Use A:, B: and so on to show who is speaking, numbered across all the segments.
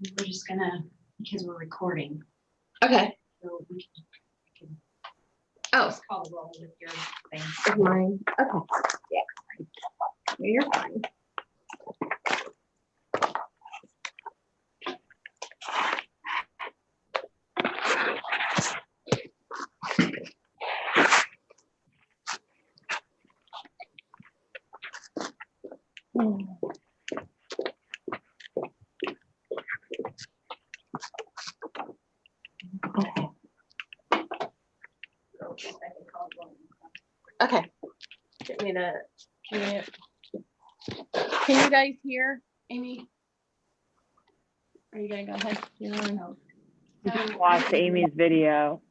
A: We're just gonna, because we're recording,
B: Okay.
A: so we can
B: Oh,
A: just call the roll with your thing.
B: it's mine. Okay. Yeah. You're fine. Okay.
A: If I can call the roll.
B: Okay. Get me to, can you, can you guys hear Amy? Are you gonna go ahead? You're on.
C: Watch Amy's video.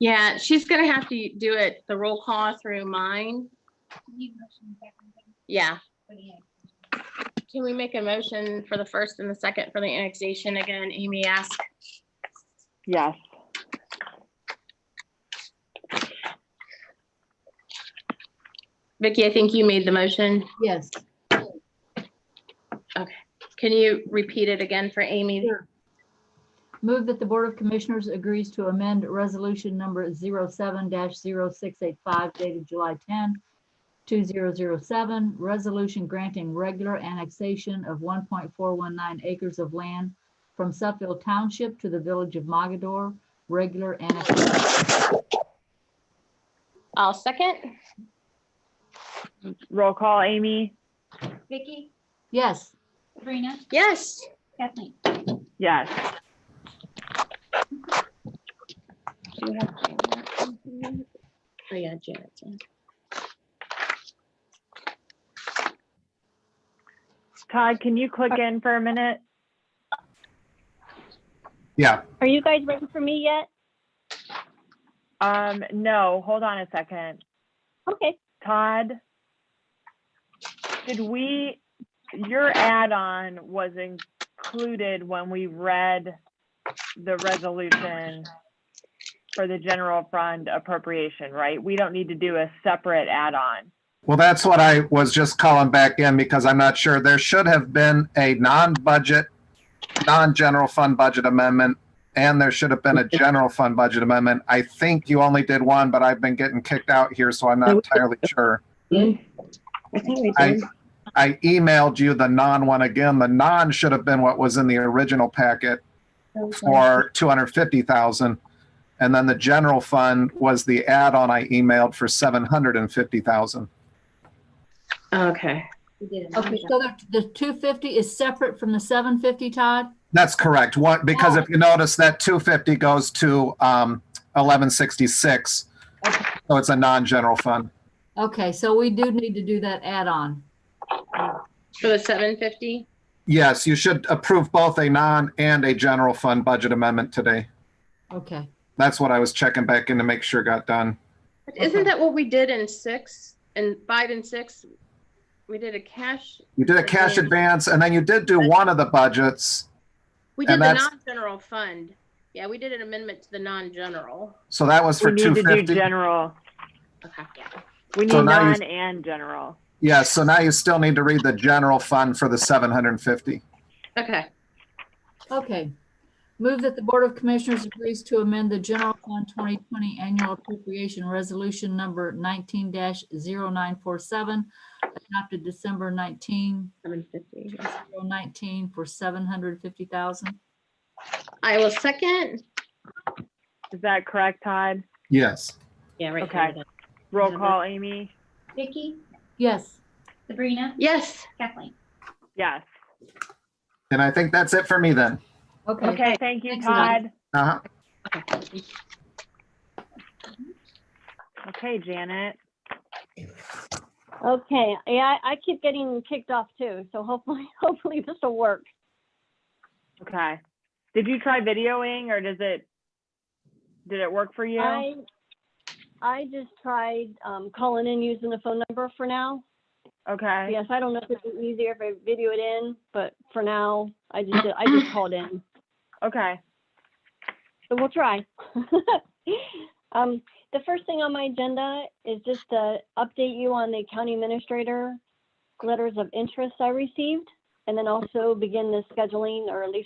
B: Yeah, she's gonna have to do it, the roll call through mine. Yeah. Can we make a motion for the first and the second for the annexation again? Amy asked.
C: Yes.
B: Vicky, I think you made the motion.
D: Yes,
B: Can you repeat it again for Amy?
D: Sure. move that the Board of Commissioners agrees to amend Resolution Number 07-0685 dated July 10, 2007, resolution granting regular annexation of 1.419 acres of land from Suffield Township to the Village of Mogador, regular annexation.
B: I'll second.
C: Roll call, Amy?
A: Vicky,
D: Yes,
A: Sabrina,
B: Yes.
A: Kathleen.
C: Yes.
B: Do you have Janet on here? Oh, yeah, Janet's on.
C: Todd, can you click in for a minute?
E: Yeah,
F: Are you guys ready for me yet?
C: Um, no, hold on a second.
F: Okay.
C: Todd? Did we, your add-on was included when we read the resolution for the general fund appropriation, right? We don't need to do a separate add-on.
E: well, that's what I was just calling back in because I'm not sure. There should have been a non-budget, non-general fund budget amendment, and there should have been a general fund budget amendment. I think you only did one, but I've been getting kicked out here, so I'm not entirely sure. I, I emailed you the non one again. The non should have been what was in the original packet for 250,000. And then the general fund was the add-on I emailed for 750,000.
B: Okay.
A: We did it.
D: okay, so the- the 250 is separate from the 750, Todd?
E: That's correct. What,
C: Oh.
E: because if you notice that two fifty goes to um eleven sixty-six. So it's a non-general fund.
D: Okay, so we do need to do that add-on.
B: For the seven fifty?
E: Yes, you should approve both a non and a general fund budget amendment today.
D: Okay,
E: That's what I was checking back in to make sure got done.
B: Isn't that what we did in six and five and six? We did a cash,
E: You did a cash
B: Okay.
E: advance and then you did do one of the budgets.
B: we did
E: And
B: the
E: that's-
B: non-general fund. Yeah, we did an amendment to the non-general.
E: So that was
C: We
E: for
C: need
E: two
C: to do
E: fifty.
C: general.
B: Okay.
C: We need
E: So now you-
C: non and general.
E: Yes, so now you still need to read the general fund for the seven hundred and fifty.
B: Okay,
D: okay. Move that the Board of Commissioners agrees to amend the General Fund 2020 Annual Appropriation Resolution Number 19-0947, adopted December 19,
B: seven fifty.
D: 2019, for 750,000.
B: I will second.
C: Is that correct, Todd?
E: Yes.
B: Yeah, right.
C: Okay.
B: here.
C: Roll
D: Mm-hmm.
B: Mhm.
C: call, Amy?
A: Vicky,
D: Yes,
A: Sabrina,
B: Yes,
A: Kathleen.
C: Yes.
E: And I think that's it for me then.
D: okay.
C: Okay, thank you,
D: Thanks a lot.
C: Todd.
E: Uh-huh.
C: Okay, Janet.
F: Okay. Yeah, I I keep getting kicked off too, so hopefully, hopefully this will work.
C: Okay. Did you try videoing or does it, did it work for you?
F: I, I just tried um, calling in using the phone number for now.
C: Okay,
F: Yes, I don't know if it's easier if I video it in, but for now, I just, did- I just called in.
C: okay.
F: So we'll try. Um, the first thing on my agenda is just to update you on the county administrator letters of interest I received, and then also begin the scheduling or at least